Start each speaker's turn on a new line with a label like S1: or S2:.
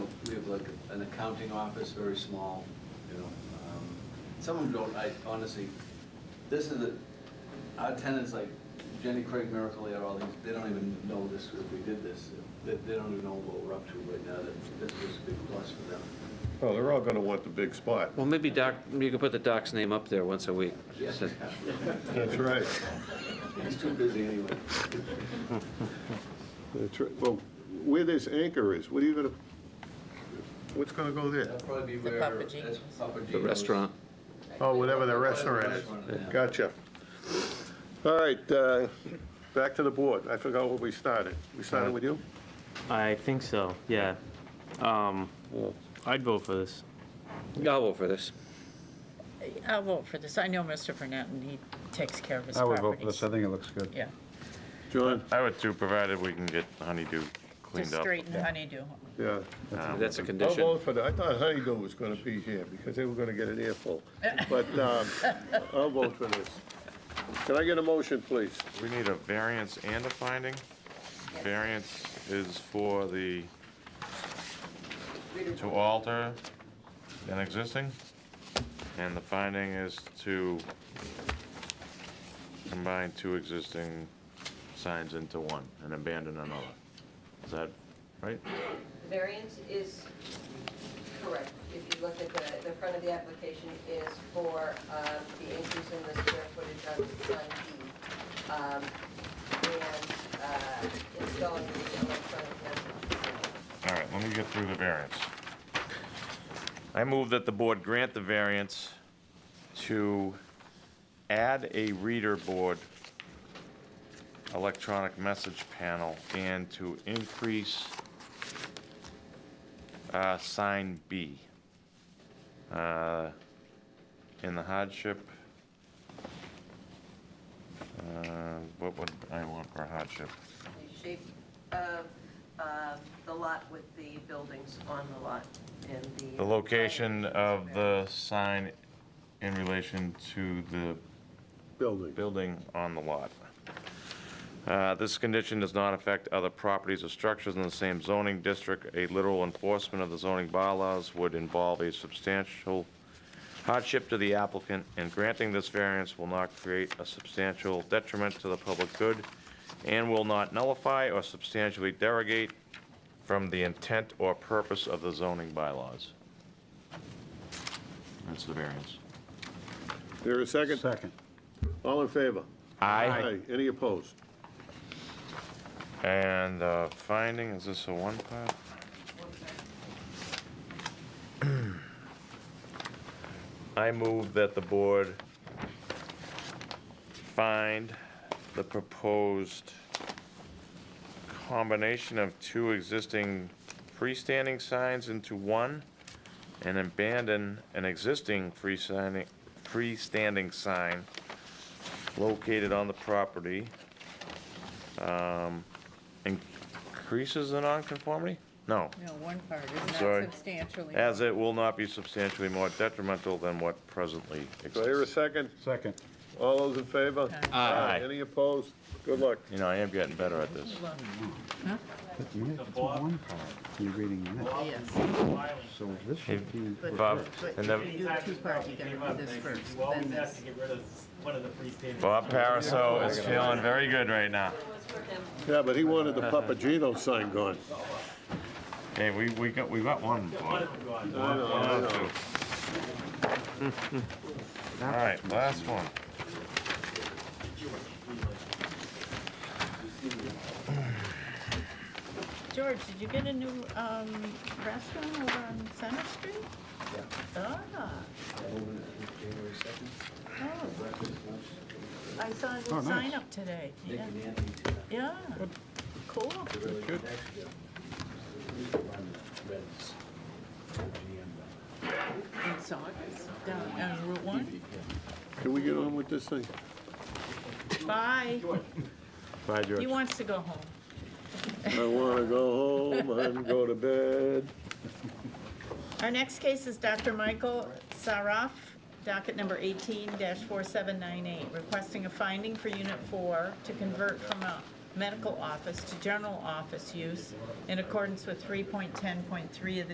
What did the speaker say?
S1: like an accounting office, very small, you know. um, Some of them don't, I honestly, this is, a- our tenants like Jenny Craig, Miracle Air, all these, they don't even know this, if we did this. They, they don't even know what we're up to right now, that this was a big plus for them.
S2: Oh, they're all gonna want the big spot.
S3: Well, maybe Doc, you can put the doc's name up there once a week.
S1: Yes,
S2: That's right.
S1: he's too busy anyway.
S2: That's right. Well, where this anchor is, what are you gonna, what's gonna go there?
S1: That'll probably be
S4: The
S1: where.
S4: Papa Gino's.
S1: that's Papa
S3: The
S1: Gino's.
S3: restaurant.
S2: Oh, whatever the restaurant is. Gotcha. All right, uh, back to the board. I forgot where we started. We started with you?
S5: I think so, yeah. Um, I'd vote for this.
S3: I'll vote for this.
S4: I'll vote for this. I know Mr. Burnett, and he takes care of his
S6: I would vote
S4: properties.
S6: for this, I think it looks good.
S4: Yeah,
S2: John?
S7: I would too, provided we can get Honeydew cleaned
S4: just
S7: up.
S4: straighten honeydew.
S2: Yeah.
S3: That's a
S2: I'll
S3: condition.
S2: vote for that. I thought Honeydew was gonna be here because they were gonna get an earful. But, um, I'll vote for this. Can I get a motion, please?
S7: We need a variance and a finding. Variance is for the, to alter an existing, and the finding is to combine two existing signs into one and abandon another. Is that right?
S8: Variance is correct. If you look at the, the front of the application is for uh, the increase in the square footage on Sun D. um, And uh, installing the electronic message.
S7: All right, let me get through the variance. I move that the board grant the variance to add a reader board electronic message panel and to increase uh, sign B uh, in the hardship. uh, What would I want for hardship?
S8: The shape of uh, the lot with the buildings on the lot and the.
S7: The location of the sign in relation to the
S2: Building.
S7: building on the lot. Uh, This condition does not affect other properties or structures in the same zoning district. A literal enforcement of the zoning bylaws would involve a substantial hardship to the applicant, and granting this variance will not create a substantial detriment to the public good and will not nullify or substantially derogate from the intent or purpose of the zoning bylaws. That's the variance.
S2: There a second?
S6: Second.
S2: All in favor?
S7: Aye.
S2: Any opposed?
S7: And uh, finding, is this a one part? I move that the board find the proposed combination of two existing freestanding signs into one and abandon an existing freestanding, freestanding sign located on the property um, increases the nonconformity? No,
S4: No, one part is
S7: Sorry.
S4: not substantially.
S7: as it will not be substantially more detrimental than what presently
S2: Do I hear a
S7: exists.
S2: second?
S6: Second.
S2: All those in favor?
S7: Aye.
S2: Any opposed? Good luck.
S7: You know, I am getting better at this.
S6: That's one- that's one part. You're reading this,
S4: Yes,
S6: so this should be.
S7: Bob, and
S4: but
S7: then
S4: you do two parts, you gotta do this first,
S9: You always
S4: then
S9: have
S4: this.
S9: to get rid of one of the freestanding.
S7: Bob Paraso is feeling very good right now.
S2: Yeah, but he wanted the Papagino sign gone.
S7: Hey, we, we got, we got one.
S9: One
S7: Bob.
S9: of them gone.
S2: I know, I
S7: One,
S2: know.
S7: two. All right, last one.
S4: George, did you get a new um, restaurant over on Center Street? Yeah. Ah,
S1: Open it January second.
S4: oh, I saw a
S6: Oh,
S4: new
S6: nice.
S4: sign up today.
S1: Nick
S4: Yeah,
S1: and Anthony did that.
S4: Yeah, cool.
S1: Really next year. Reds. GM.
S4: In Saugus, down on Route One.
S2: Can we get on with this thing?
S4: Bye.
S7: Bye,
S4: He wants to go home.
S2: I wanna go home and go to bed.
S4: Our next case is Dr. Michael Saraf, docket number 18-4798, requesting a finding for Unit 4 to convert from a medical office to general office use in accordance with 3.10.3 of the